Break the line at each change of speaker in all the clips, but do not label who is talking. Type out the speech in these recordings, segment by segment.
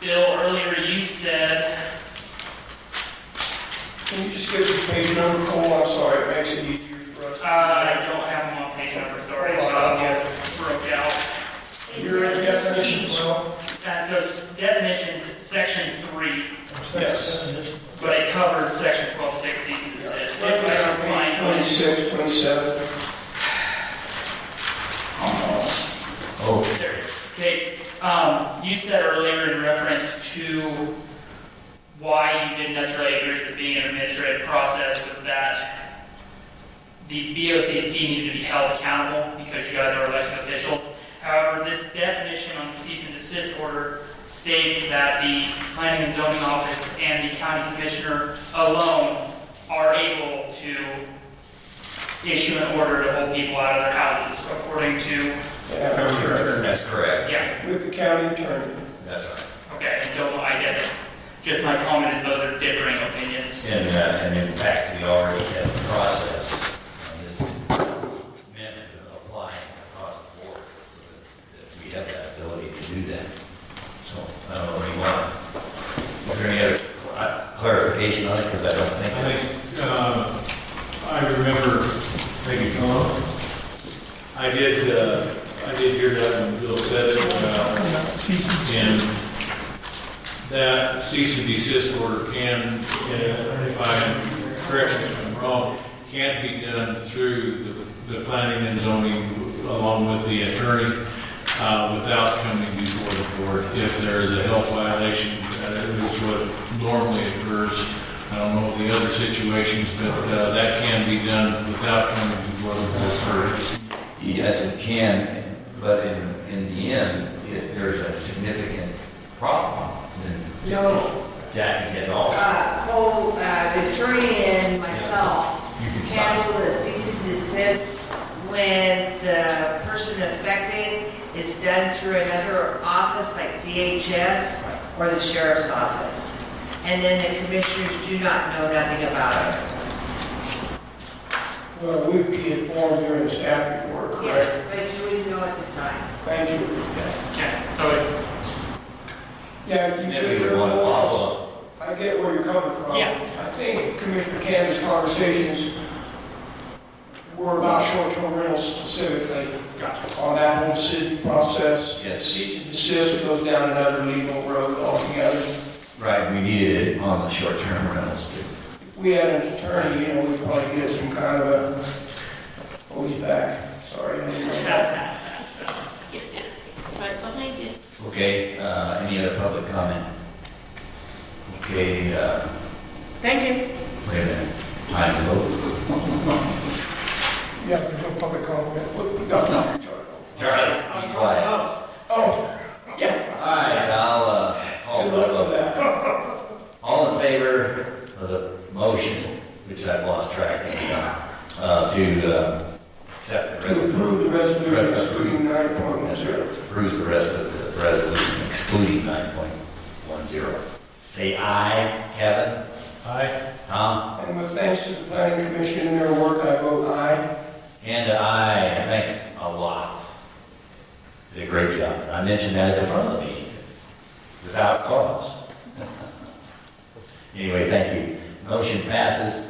Bill, earlier you said,
Can you just give us the page number, Cole? I'm sorry, it makes it easier for us.
uh, I don't have them on page number, sorry,
Hold on, I'll get
uh,
it.
broke out.
You're in definitions, well,
Uh, so it's definitions, section three,
yes.
but it covers section twelve six, Cs and desist. If I can
Page
find one,
Twenty-six, twenty-seven.
There it is. Okay, um, you said earlier in reference to why you didn't necessarily agree with it being an administrative process was that the BOCC needed to be held accountable because you guys are elected officials. However, this definition on the cease and desist order states that the planning and zoning office and the county commissioner alone are able to issue an order to hold people out of their houses according to
That's correct.
yeah,
With the county attorney.
That's right.
okay, and so I guess just my comment is those are differing opinions.
And, uh, and in fact, we already have the process. And this meant to apply across the board. so that- that We have that ability to do that. So I don't know what you want. Is there any other uh, clarification on it? Because I don't
I
think.
think, uh, I remember, thank you, Tom. I did, uh, I did hear that when Bill said it, uh, and that cease and desist order can, uh, if I'm correct, me if I'm wrong, can be done through the- the planning and zoning along with the attorney, uh, without coming before the board. If there is a health violation, that is what normally occurs I don't know the other situations, but uh, that can be done without coming before the board first.
Yes, it can, but in, in the end, if there's a significant problem, then
No,
Jackie has all.
uh, Cole, uh, Victoria and myself
You can stop.
handled a cease and desist when the person affected is done through another office like DHS or the sheriff's office. And then the commissioners do not know nothing about it.
Well, we'd be informed during staff report, correct?
Yes, but you wouldn't know at the time.
Thank you.
Okay, so it's,
Yeah, you
And
could
then we would want to follow up.
I get where you're coming from.
Yeah.
I think Commissioner Candy's conversations were about short-term rentals specifically. On that whole decision process.
Yes.
Cease and desist goes down another legal road altogether.
Right, we needed it on the short-term rentals too.
If we had an attorney, you know, we'd probably get some kind of a, oh, he's back, sorry. I didn't know.
Yeah, that's right behind you.
Okay, uh, any other public comment? Okay, uh,
Thank you.
wait a minute, time to vote.
Yeah, there's no public comment. What- we got-
Charlie, be quiet.
Oh,
All right, I'll, uh, call
good
for the
luck with
vote.
that.
All in favor of the motion, which I've lost track of, uh, to, uh, accept the
To
resolution?
approve the resolution excluding nine point one
That's right.
zero.
Approves the rest of the resolution excluding nine point one zero. Say aye, Kevin.
Aye.
Tom?
And with thanks to the planning commission and their work, I vote aye.
And aye, thanks a lot. Did a great job. I mentioned that at the front of the meeting, without cause. Anyway, thank you. Motion passes.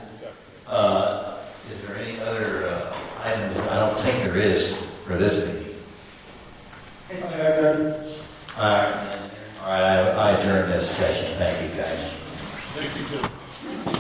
Uh, Is there any other uh, items? I don't think there is for this meeting.
I have none.
All right, all right, I I adjourn this session. Thank you, guys.
Thank you, Tim.